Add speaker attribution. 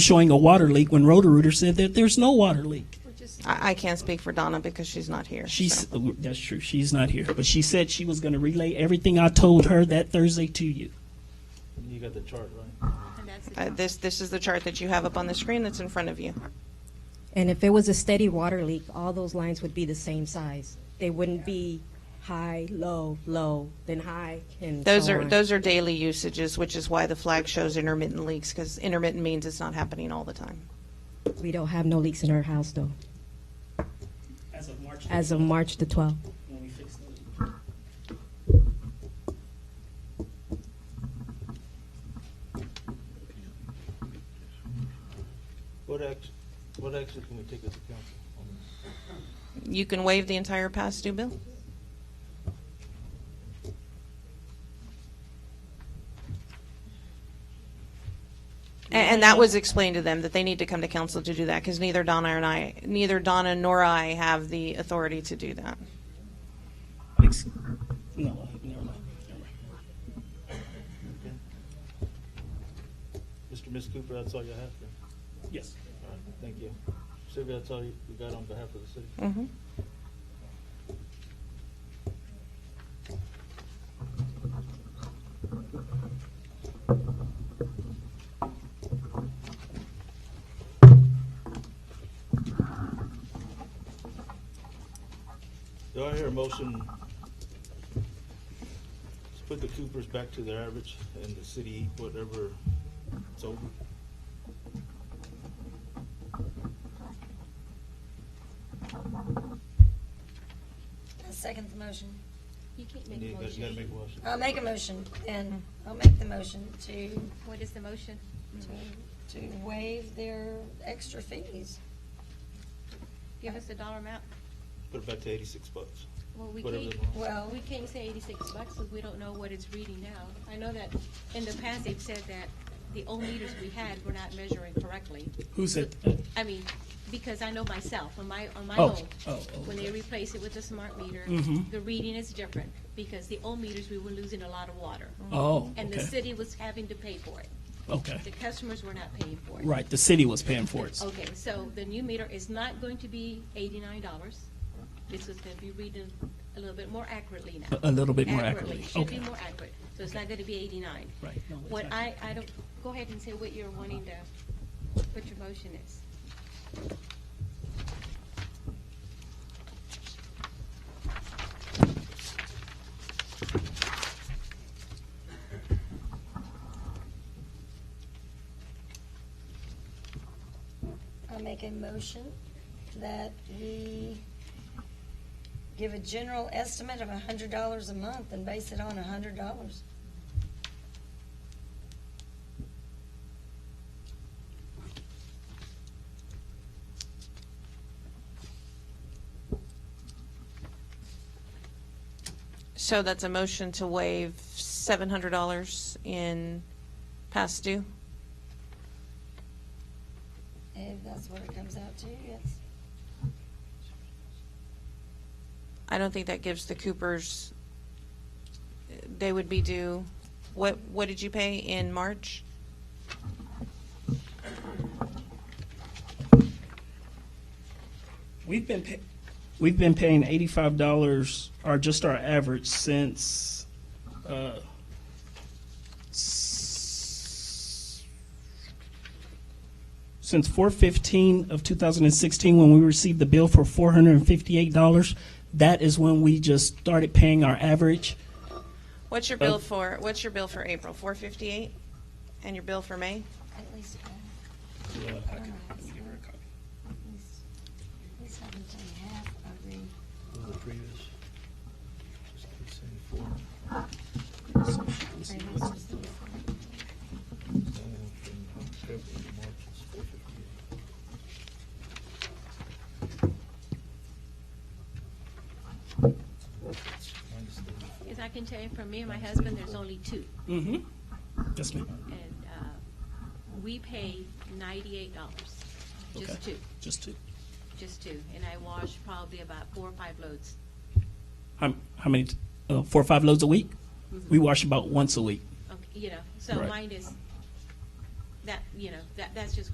Speaker 1: showing a water leak when Roto-Rooter said that there's no water leak.
Speaker 2: I, I can't speak for Donna because she's not here.
Speaker 1: She's, oh, that's true, she's not here, but she said she was going to relay everything I told her that Thursday to you.
Speaker 3: You got the chart, right?
Speaker 2: Uh, this, this is the chart that you have up on the screen that's in front of you.
Speaker 4: And if it was a steady water leak, all those lines would be the same size. They wouldn't be high, low, low, then high, and
Speaker 2: Those
Speaker 4: so
Speaker 2: are,
Speaker 4: on.
Speaker 2: those are daily usages, which is why the flag shows intermittent leaks, because intermittent means it's not happening all the time.
Speaker 4: We don't have no leaks in our house though,
Speaker 1: As of March,
Speaker 4: as of March the 12th.
Speaker 1: when we fixed the leak.
Speaker 3: What action, what action can we take as a council on this?
Speaker 2: You can waive the entire past due bill. A- And that was explained to them, that they need to come to council to do that, because neither Donna and I, neither Donna nor I have the authority to do that.
Speaker 1: Ex- No, never mind.
Speaker 3: Mr. and Ms. Cooper, that's all you have then?
Speaker 1: Yes.
Speaker 3: All right, thank you. Sylvia, that's all you you got on behalf of the city?
Speaker 2: Mhm.
Speaker 3: Do I hear a motion? Let's put the Coopers back to their average and the city eat whatever it's over.
Speaker 5: I second the motion.
Speaker 6: You can't
Speaker 3: You
Speaker 6: make a
Speaker 3: need- you gotta
Speaker 6: motion.
Speaker 3: make a motion.
Speaker 5: I'll make a motion, then. I'll make the motion to,
Speaker 6: What is the motion?
Speaker 5: to, to waive their extra fees.
Speaker 6: Give us a dollar amount.
Speaker 3: Put it back to eighty-six bucks.
Speaker 6: Well, we
Speaker 3: Whatever
Speaker 6: can't,
Speaker 3: they want.
Speaker 5: Well-
Speaker 6: we can't say eighty-six bucks because we don't know what it's reading now. I know that in the past they've said that the old meters we had were not measuring correctly.
Speaker 1: Who said that?
Speaker 6: I mean, because I know myself, on my, on my
Speaker 1: Oh,
Speaker 6: own,
Speaker 1: oh, oh,
Speaker 6: when they
Speaker 1: okay.
Speaker 6: replace it with the smart meter,
Speaker 1: Mhm.
Speaker 6: the reading is different because the old meters, we were losing a lot of water.
Speaker 1: Oh,
Speaker 6: And the
Speaker 1: okay,
Speaker 6: city was having to pay for it.
Speaker 1: okay.
Speaker 6: The customers were not paying for it.
Speaker 1: Right, the city was paying for it.
Speaker 6: Okay, so the new meter is not going to be eighty-nine dollars. This is gonna be reading a little bit more accurately now.
Speaker 1: A- a little bit more accurately,
Speaker 6: Should be
Speaker 1: okay.
Speaker 6: more accurate, so it's not gonna be eighty-nine.
Speaker 1: Right, no, it's
Speaker 6: What
Speaker 1: not.
Speaker 6: I, I don't, go ahead and say what you're wanting to, what your motion is.
Speaker 5: I'll make a motion that we give a general estimate of a hundred dollars a month and base it on a hundred dollars.
Speaker 2: So that's a motion to waive seven hundred dollars in past due?
Speaker 5: If that's what it comes out to, yes.
Speaker 2: I don't think that gives the Coopers, they would be due, what, what did you pay in March?
Speaker 1: We've been, pa- we've been paying eighty-five dollars, or just our average since, uh, s- since four fifteen of two thousand and sixteen, when we received the bill for four hundred and fifty-eight dollars. That is when we just started paying our average.
Speaker 2: What's your bill for, what's your bill for April, four fifty-eight? And your bill for May?
Speaker 5: At least, uh, at least, at least I can pay half of the
Speaker 3: The previous. Just the same four.
Speaker 5: previous receipts.
Speaker 3: And from February to March, it's 458. Minus the-
Speaker 6: As I can tell you, for me and my husband, there's only two.
Speaker 1: Mm-hmm. Yes, ma'am.
Speaker 6: And, uh, we pay ninety-eight dollars,
Speaker 1: Okay.
Speaker 6: just two,
Speaker 1: Just two.
Speaker 6: just two. And I wash probably about four or five loads.
Speaker 1: How, how many, t- uh, four or five loads a week?
Speaker 6: Mm-hmm.
Speaker 1: We wash about once a week.
Speaker 6: Okay, you know, so
Speaker 1: Right.
Speaker 6: mine is, that, you know, that, that's just